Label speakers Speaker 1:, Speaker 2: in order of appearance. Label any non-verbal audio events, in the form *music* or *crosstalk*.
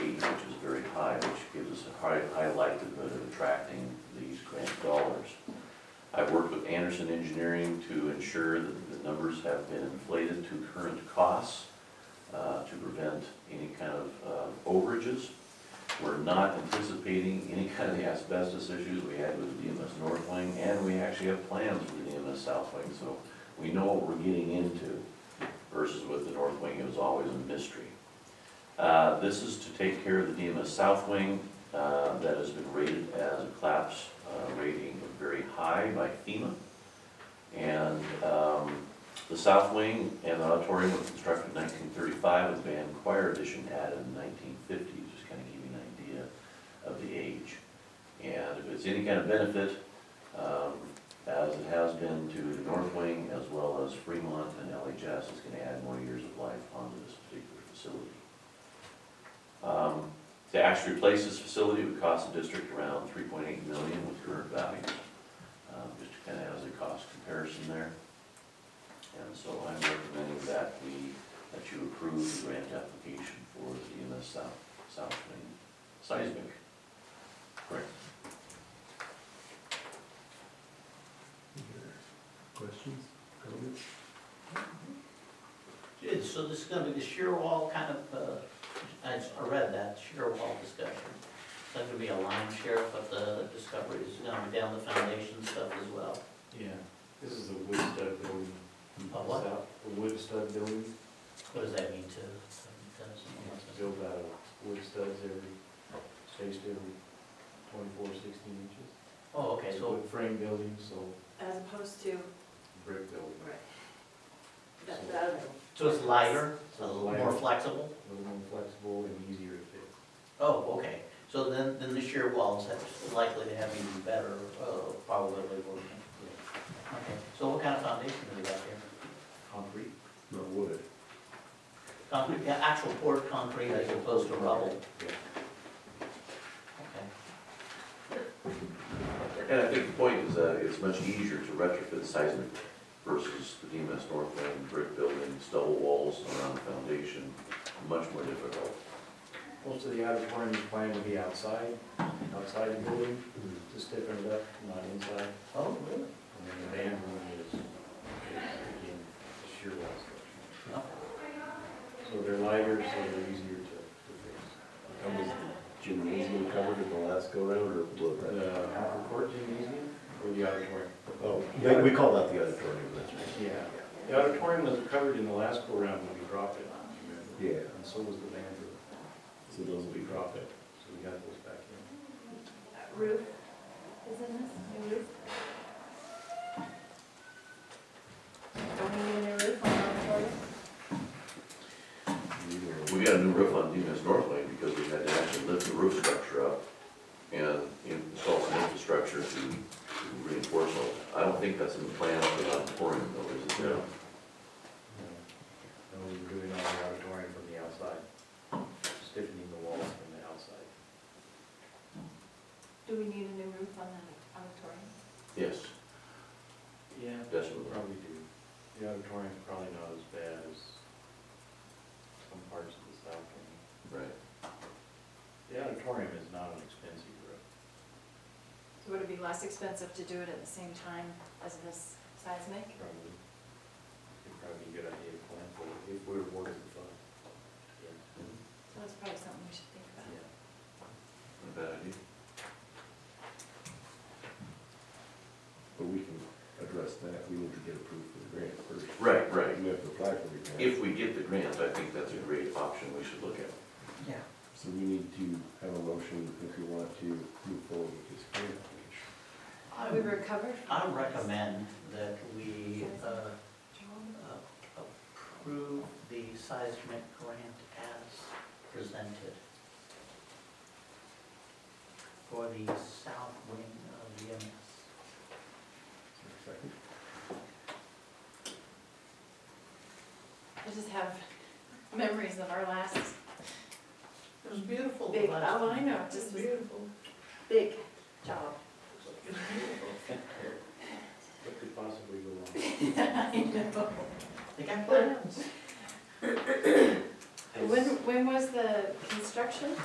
Speaker 1: Anderson Engineering to ensure that the numbers have been inflated to current costs uh, to prevent any kind of uh, overages. We're not anticipating any kind of the asbestos issues we had with the DMS North Wing, and we actually have plans for the DMS South Wing, so we know what we're getting into versus with the North Wing, it was always a mystery. Uh, This is to take care of the DMS South Wing, uh, that has been rated as a collapse uh, rating of very high by FEMA. And um, the south wing and the auditorium was constructed in 1935 with band choir addition added in 1950, just kind of give you an idea of the age. And if it's any kind of benefit, um, as it has been to the north wing as well as Fremont and LHS, it's going to add more years of life onto this particular facility. Um, to actually replace this facility would cost the district around three point eight million with current values. Um, Just kind of as a cost comparison there. And so I'm recommending that we, that you approve the grant application for the EMS South, South Main seismic. Correct.
Speaker 2: Questions, comments?
Speaker 3: Good, so this is gonna be the shear wall kind of, uh, I s- I read that, shear wall discussion. It's not gonna be a line shear, but the discovery is gonna be down the foundation stuff as well.
Speaker 4: Yeah, this is a wood stud building.
Speaker 3: A what?
Speaker 4: A wood stud building,
Speaker 3: What does that mean to, to- to someone
Speaker 4: it's
Speaker 3: else's?
Speaker 4: built out of wood studs every, spaced every twenty-four, sixteen inches.
Speaker 3: Oh, okay,
Speaker 4: It's a
Speaker 3: so,
Speaker 4: wood frame building, so
Speaker 5: As opposed to,
Speaker 4: brick building,
Speaker 5: right, that, that other one.
Speaker 3: so it's
Speaker 4: So
Speaker 3: lighter, a
Speaker 4: it's
Speaker 3: little more
Speaker 4: lighter.
Speaker 3: flexible?
Speaker 4: a little more flexible and easier to fit.
Speaker 3: Oh, okay, so then, then the shear walls have, likely to have even better, uh, probability of working. Okay, so what kind of foundation do they got here?
Speaker 4: Concrete,
Speaker 2: Not wood.
Speaker 3: Concrete, yeah, actual poured concrete as opposed to rubble?
Speaker 4: yeah.
Speaker 3: Okay.
Speaker 1: And I think the point is that it's much easier to retrofit seismic versus the DMS North Wing brick building, stubble walls around the foundation, much more difficult.
Speaker 4: Most of the auditorium is planned to be outside, outside the building,
Speaker 2: Mm-hmm.
Speaker 4: to stiffen it up, not inside.
Speaker 3: Oh, really?
Speaker 4: And then the band room is, again, sheer wall structure.
Speaker 3: No.
Speaker 4: So they're lighter, so they're easier to, to fix.
Speaker 2: How was gymnasium covered in the last go round or blue?
Speaker 4: The Hopper Court Gymnasium or the auditorium?
Speaker 2: Oh, they- we call that the auditorium, that's right.
Speaker 4: Yeah. The auditorium was covered in the last go round when we dropped it, remember?
Speaker 2: Yeah,
Speaker 4: And so was the band room.
Speaker 2: so those will
Speaker 4: We
Speaker 2: be.
Speaker 4: dropped it, so we got those back in.
Speaker 5: Uh, roof, is in this, new roof? Don't we need a new roof on the auditorium?
Speaker 1: We got a new roof on Demus North Lane because we had to actually lift the roof structure up and install some infrastructure to to reinforce it. I don't think that's in the plan for the auditorium though, is it?
Speaker 4: No. No, we were doing all the auditorium from the outside, stiffening the walls from the outside.
Speaker 5: Do we need a new roof on the auditorium?
Speaker 1: Yes,
Speaker 4: Yeah.
Speaker 1: definitely.
Speaker 4: Probably do. The auditorium's probably not as bad as some parts of the south wing.
Speaker 1: Right.
Speaker 4: The auditorium is not an expensive roof.
Speaker 5: Would it be less expensive to do it at the same time as this seismic?
Speaker 4: Probably, it'd probably be a good idea to plan for it, if we were awarded the fund. Yeah.
Speaker 5: So that's probably something we should think about.
Speaker 1: Not a bad idea.
Speaker 2: But we can address that, we need to get approved for the grant first.
Speaker 1: Right, right.
Speaker 2: We have to apply for the grant.
Speaker 1: If we get the grant, I think that's a great option we should look at.
Speaker 3: Yeah.
Speaker 2: So we need to have a motion if we want to move forward with this grant application.
Speaker 3: I
Speaker 5: We
Speaker 3: would,
Speaker 5: recovered
Speaker 3: I
Speaker 5: from
Speaker 3: recommend that we uh, uh,
Speaker 5: Joel?
Speaker 3: approve the seismic grant as presented for the south wing of the MS.
Speaker 2: Is there a second?
Speaker 5: I just have memories of our last
Speaker 3: It was beautiful. the
Speaker 5: big,
Speaker 3: last
Speaker 5: oh, I
Speaker 3: time.
Speaker 5: know, it just was
Speaker 3: *laughs*
Speaker 5: big job. *laughs*
Speaker 3: It was
Speaker 4: *laughs*
Speaker 3: beautiful.
Speaker 4: What could possibly go wrong?
Speaker 5: I know.
Speaker 3: They got plans.
Speaker 5: When, when was the construction?